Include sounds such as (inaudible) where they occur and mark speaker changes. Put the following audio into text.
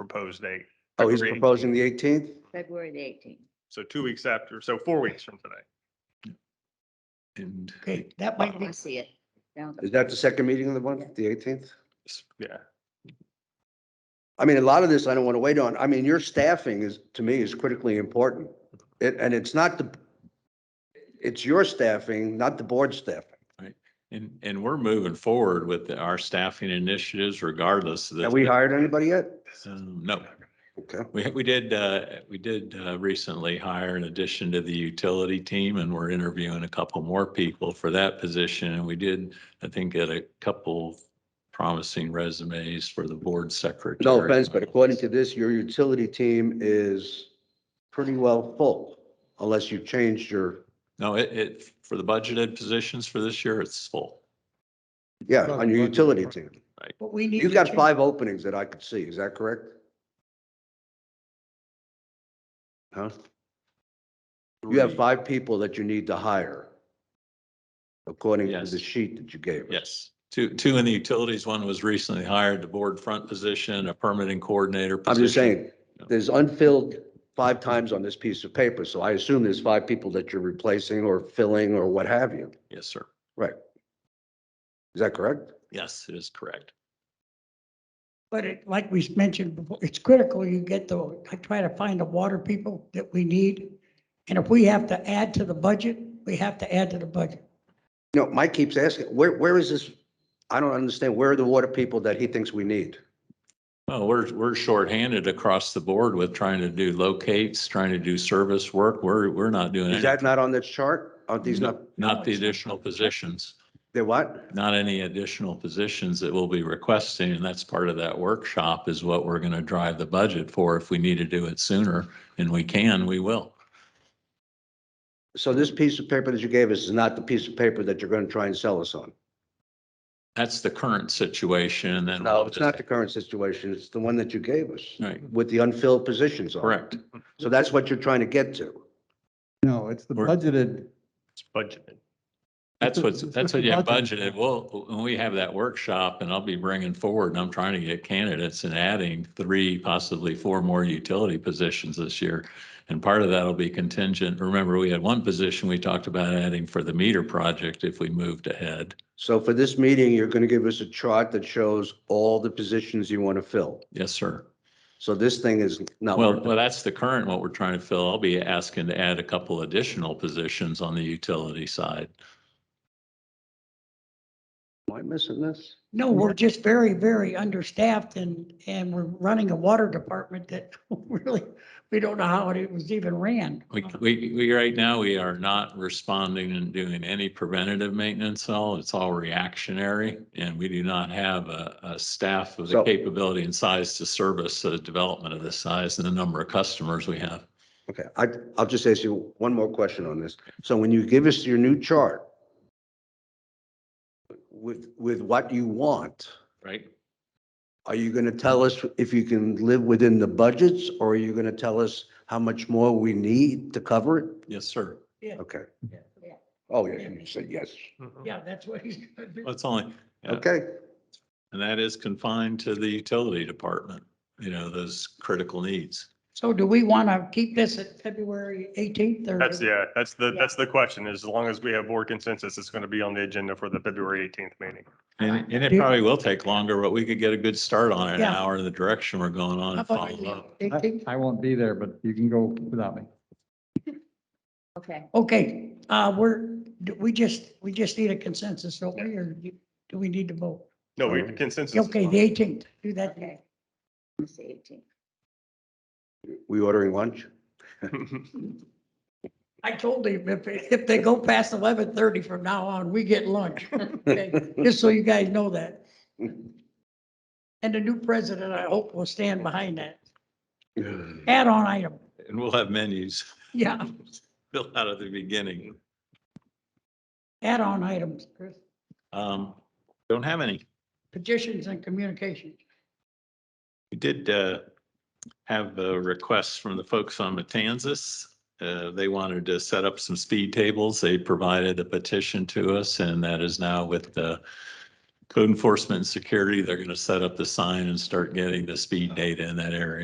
Speaker 1: proposed date.
Speaker 2: Oh, he's
Speaker 1: February
Speaker 2: proposing the eighteenth?
Speaker 3: February the eighteenth.
Speaker 1: So two weeks after, so four weeks from today.
Speaker 4: And
Speaker 5: Okay, that
Speaker 3: I
Speaker 5: might be,
Speaker 3: wanna see it. Now,
Speaker 2: Is that the second meeting of the month, the eighteenth?
Speaker 1: S- Yeah,
Speaker 2: I mean, a lot of this I don't want to wait on. I mean, your staffing is, to me, is critically important. It, and it's not the, it's your staffing, not the board staffing.
Speaker 4: and and we're moving forward with our staffing initiatives regardless of this.
Speaker 2: Have we hired anybody yet?
Speaker 4: Um, No,
Speaker 2: Okay.
Speaker 4: we we did, uh, we did uh, recently hire an addition to the utility team and we're interviewing a couple more people for that position. And we did, I think, get a couple promising resumes for the board secretary.
Speaker 2: No offense, but according to this, your utility team is pretty well full unless you changed your,
Speaker 4: No, it, it, for the budgeted positions for this year, it's full.
Speaker 2: yeah, on your utility team.
Speaker 5: but we need.
Speaker 2: You've
Speaker 5: to
Speaker 2: got
Speaker 5: change-
Speaker 2: five openings that I could see. Is that correct? Huh? You have
Speaker 4: Three.
Speaker 2: five people that you need to hire, according to the
Speaker 4: Yes.
Speaker 2: sheet that you gave us.
Speaker 4: Yes, two, two in the utilities. One was recently hired, the board front position, a permitting coordinator.
Speaker 2: I'm just
Speaker 4: position.
Speaker 2: saying, there's unfilled five times on this piece of paper, so I assume there's five people that you're replacing or filling or what have you.
Speaker 4: Yes, sir.
Speaker 2: Right. Is that correct?
Speaker 4: Yes, it is correct.
Speaker 5: But it, like we mentioned before, it's critical you get the, I try to find the water people that we need. And if we have to add to the budget, we have to add to the budget.
Speaker 2: No, Mike keeps asking, where, where is this? I don't understand. Where are the water people that he thinks we need?
Speaker 4: Well, we're, we're shorthanded across the board with trying to do locates, trying to do service work. We're, we're not doing
Speaker 2: Is
Speaker 4: any,
Speaker 2: that not on this chart? Are these not,
Speaker 4: not the additional positions,
Speaker 2: they're what?
Speaker 4: not any additional positions that we'll be requesting. And that's part of that workshop is what we're going to drive the budget for. If we need to do it sooner and we can, we will.
Speaker 2: So this piece of paper that you gave us is not the piece of paper that you're going to try and sell us on?
Speaker 4: That's the current situation and then.
Speaker 2: No,
Speaker 4: we'll
Speaker 2: it's
Speaker 4: just-
Speaker 2: not the current situation. It's the one that you gave us
Speaker 4: Right,
Speaker 2: with the unfilled positions on. it.
Speaker 4: correct.
Speaker 2: So that's what you're trying to get to.
Speaker 6: No, it's the
Speaker 4: Or-
Speaker 6: budgeted,
Speaker 1: it's budgeted.
Speaker 6: It's
Speaker 4: That's
Speaker 6: a-
Speaker 4: what's,
Speaker 6: it's
Speaker 4: that's
Speaker 6: a
Speaker 4: what you have
Speaker 6: budget.
Speaker 4: budgeted. Well, when we have that workshop and I'll be bringing forward and I'm trying to get candidates and adding three, possibly four more utility positions this year. And part of that'll be contingent. Remember, we had one position we talked about adding for the meter project if we moved ahead.
Speaker 2: So for this meeting, you're going to give us a chart that shows all the positions you want to fill.
Speaker 4: Yes, sir.
Speaker 2: So this thing is not.
Speaker 4: Well, well, that's the current, what we're trying to fill. I'll be asking to add a couple additional positions on the utility side.
Speaker 2: Am I missing this?
Speaker 5: No,
Speaker 1: Mm-hmm.
Speaker 5: we're just very, very understaffed and, and we're running a water department that (laughs) really, we don't know how it was even ran.
Speaker 4: We, we, we, right now, we are not responding and doing any preventative maintenance at all. It's all reactionary. And we do not have a, a staff with the
Speaker 2: So-
Speaker 4: capability and size to service the development of this size and the number of customers we have.
Speaker 2: Okay, I, I'll just ask you one more question on this. So when you give us your new chart with, with what you want,
Speaker 4: Right.
Speaker 2: are you going to tell us if you can live within the budgets or are you going to tell us how much more we need to cover it?
Speaker 4: Yes, sir.
Speaker 2: Okay.
Speaker 5: Yeah.
Speaker 2: Oh, yeah, you said yes.
Speaker 5: Yeah, that's what he's gonna do.
Speaker 4: That's only, Yeah.
Speaker 2: Okay,
Speaker 4: and that is confined to the utility department, you know, those critical needs.
Speaker 5: So do we want to keep this at February 18th or?
Speaker 1: That's, yeah, that's the, that's the question. As long as we have board consensus, it's going to be on the agenda for the February 18th meeting.
Speaker 4: And, and it
Speaker 5: Do-
Speaker 4: probably will take longer, but we could get a good start on it, an
Speaker 5: Yeah.
Speaker 4: hour in the direction we're going on and
Speaker 5: How about
Speaker 4: follow up.
Speaker 6: I,
Speaker 5: 18th?
Speaker 6: I won't be there, but you can go without me.
Speaker 3: Okay,
Speaker 5: Okay, uh, we're, do we just, we just need a consensus, don't we, or do- do we need to vote?
Speaker 1: No, we
Speaker 2: Oh.
Speaker 1: consensus. is
Speaker 5: Okay,
Speaker 1: fine.
Speaker 5: the eighteenth, do that.
Speaker 3: okay. Let's see, eighteen.
Speaker 2: we ordering lunch? (laughs)
Speaker 1: (laughs)
Speaker 5: I told him if, if they go past eleven thirty from now on, we get (laughs) lunch. Okay, Just so you guys know that. And the new president, I hope, will stand behind that. Add-on item,
Speaker 4: And we'll have menus (laughs)
Speaker 5: yeah,
Speaker 4: built out at the beginning.
Speaker 5: add-on items, Chris.
Speaker 4: Um, don't have any.
Speaker 5: Petitions and communications.
Speaker 4: We did, uh, have a request from the folks on Matanzas. Uh, they wanted to set up some speed tables. They provided a petition to us and that is now with the code enforcement and security, they're going to set up the sign and start getting the speed data in that area.